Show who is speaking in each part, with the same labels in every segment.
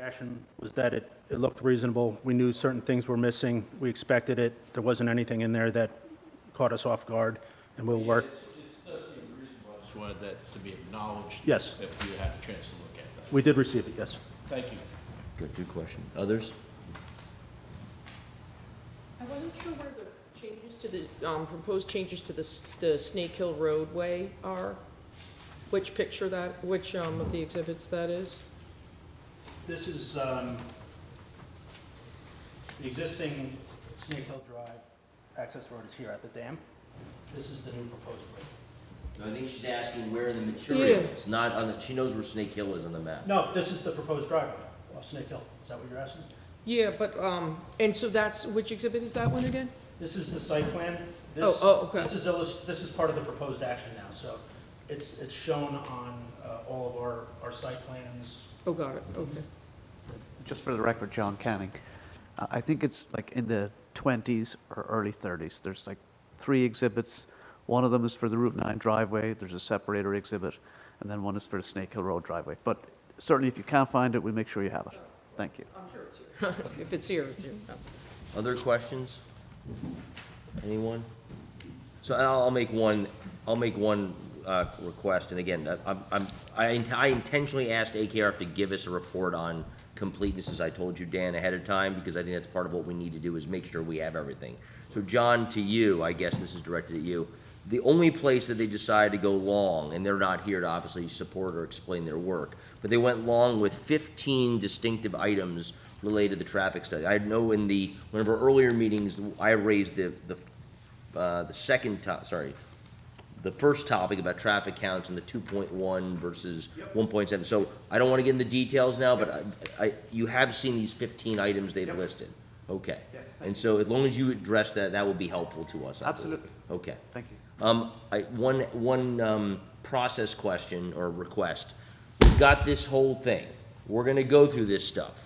Speaker 1: action was that it, it looked reasonable. We knew certain things were missing. We expected it. There wasn't anything in there that caught us off guard, and we'll work.
Speaker 2: It's- it's- It does seem reasonable. I just wanted that to be acknowledged.
Speaker 1: Yes.
Speaker 2: If you had a chance to look at that.
Speaker 1: We did receive it, yes.
Speaker 2: Thank you.
Speaker 3: Good, good question. Others?
Speaker 4: I wasn't sure where the changes to the, um, proposed changes to the, s- the Snake Hill roadway are, which picture that, which, um, of the exhibits that is?
Speaker 1: This is um, the existing Snake Hill Drive access road is here at the dam. This is the new proposed road.
Speaker 3: No, I think she's asking where the material is, not on the, she knows where Snake Hill is on the map.
Speaker 1: No, this is the proposed driveway of Snake Hill. Is that what you're asking?
Speaker 4: Yeah, but, um, and so that's, which exhibit is that one again?
Speaker 1: This is the site plan. This-
Speaker 4: Oh, oh, okay.
Speaker 1: This is, illus- this is part of the proposed action now, so it's, it's shown on uh, all of our, our site plans.
Speaker 4: Oh, got it, okay.
Speaker 5: Just for the record, John Canning, uh, I think it's like in the 20s or early 30s. There's like three exhibits. One of them is for the Route 9 driveway, there's a separator exhibit, and then one is for the Snake Hill Road driveway. But certainly, if you can't find it, we make sure you have it. Thank you.
Speaker 4: I'm sure it's here. If it's here, it's here.
Speaker 3: Other questions? Anyone? So I'll, I'll make one, I'll make one, uh, request, and again, I- I'm, I'm, I int- I intentionally asked AKRF to give us a report on completeness, as I told you, Dan, ahead of time, because I think that's part of what we need to do, is make sure we have everything. So John, to you, I guess this is directed at you, the only place that they decided to go long, and they're not here to obviously support or explain their work, but they went long with fifteen distinctive items related to the traffic study. I know in the, one of our earlier meetings, I raised the, the uh, the second to, sorry, the first topic about traffic counts and the two point one versus one point seven. So I don't want to get into details now, but I, I, you have seen these fifteen items they've listed. Okay.
Speaker 5: Yes, thank
Speaker 3: And so as long as you address that, that will be helpful to us, I believe.
Speaker 5: Absolutely.
Speaker 3: Okay.
Speaker 5: Thank you.
Speaker 3: Um, I, one, one, um, process question or request. We've got this whole thing. We're gonna go through this stuff.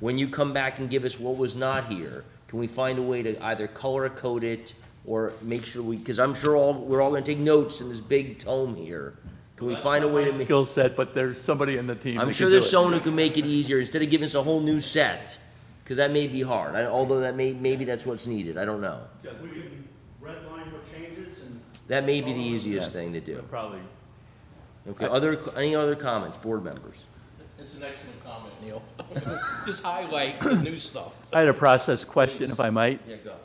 Speaker 3: When you come back and give us what was not here, can we find a way to either color code it or make sure we, because I'm sure all, we're all gonna take notes in this big tome here. Can we find a way to make,
Speaker 6: skill set, but there's somebody in the team. who
Speaker 3: I'm
Speaker 6: can
Speaker 3: sure
Speaker 6: do
Speaker 3: there's
Speaker 6: it.
Speaker 3: someone who can make it easier instead of giving us a whole new set, because that may be hard. I- Although that may, maybe that's what's needed. I don't know.
Speaker 1: We can red line what changes and.
Speaker 3: That may be the easiest thing to do.
Speaker 6: Probably.
Speaker 3: Okay, other, any other comments, board members?
Speaker 2: It's an excellent comment, Neil. Just highlight the new stuff.
Speaker 6: I had a process question, if I might.
Speaker 3: Yeah, go.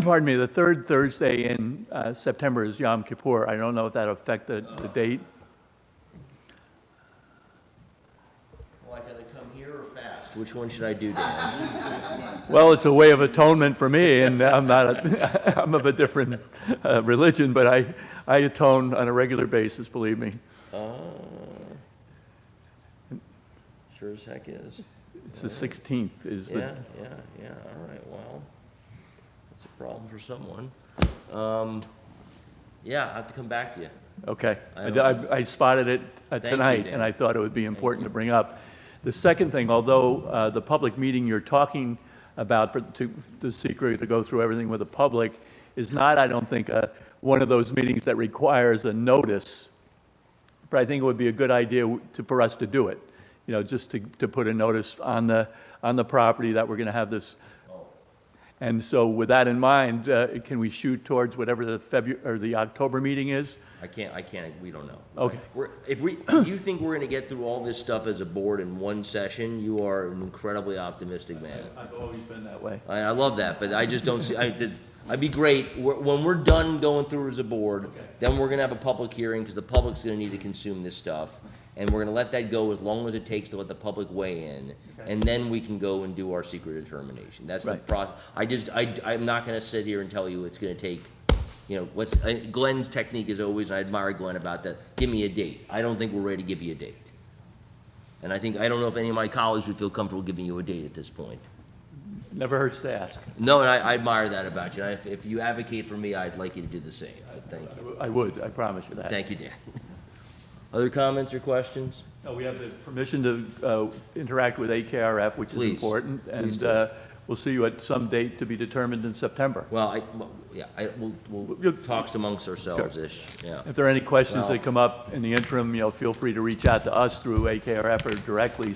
Speaker 6: Pardon me, the third Thursday in uh, September is Yom Kippur. I don't know if that'll affect the, the date.
Speaker 3: Well, I gotta come here or fast? Which one should I do, Dan?
Speaker 6: Well, it's a way of atonement for me, and I'm not, a- I'm of a different uh, religion, but I, I atone on a regular basis, believe me.
Speaker 3: Sure as heck is.
Speaker 6: It's the 16th is the.
Speaker 3: Yeah, yeah, yeah, all right, well, that's a problem for someone. Um, yeah, I'll have to come back to you.
Speaker 6: Okay.
Speaker 3: I
Speaker 6: I-
Speaker 3: don't-
Speaker 6: I I spotted it uh,
Speaker 3: Thank you,
Speaker 6: tonight,
Speaker 3: Dan.
Speaker 6: and I thought it would be important to bring up. The second thing, although uh, the public meeting you're talking about, for- to the secret, to go through everything with the public, is not, I don't think, uh, one of those meetings that requires a notice but I think it would be a good idea to, for us to do it, you know, just to, to put a notice on the, on the property that we're gonna have this. And so with that in mind, uh, can we shoot towards whatever the February, or the October meeting is?
Speaker 3: I can't, I can't, we don't know.
Speaker 6: Okay.
Speaker 3: We're, if we, you think we're gonna get through all this stuff as a board in one session, you are an incredibly optimistic man.
Speaker 6: I've always been that way.
Speaker 3: I, I love that, but I just don't see, I, the- I'd be great, we're- when we're done going through as a board, then we're gonna have a public hearing, because the public's gonna need to consume this stuff, and we're gonna let that go as long as it takes to let the public weigh in, and then we can go and do our secret determination, that's the
Speaker 6: Right.
Speaker 3: process. I just, I, I'm not gonna sit here and tell you it's gonna take, you know, what's, I- Glenn's technique is always, and I admire Glenn about that, give me a date, I don't think we're ready to give you a date. And I think, I don't know if any of my colleagues would feel comfortable giving you a date at this point.
Speaker 6: Never hurts to ask.
Speaker 3: No, and I, I admire that about you. And I- If you advocate for me, I'd like you to do the same. But Thank you.
Speaker 6: I would, I promise you that.
Speaker 3: Thank you, Dan. Other comments or questions?
Speaker 6: No, Uh, we have the permission to uh, interact with AKRF, which is
Speaker 3: Please.
Speaker 6: important.
Speaker 3: Please
Speaker 6: And
Speaker 3: do.
Speaker 6: uh, we'll see you at some date to be determined in September.
Speaker 3: Well, I, well, yeah, I, we'll, we'll
Speaker 6: You'll-
Speaker 3: talks amongst ourselves-ish, yeah.
Speaker 6: If there are any questions
Speaker 3: Well-
Speaker 6: that come up in the interim, you know, feel free to reach out to us through AKRF or directly,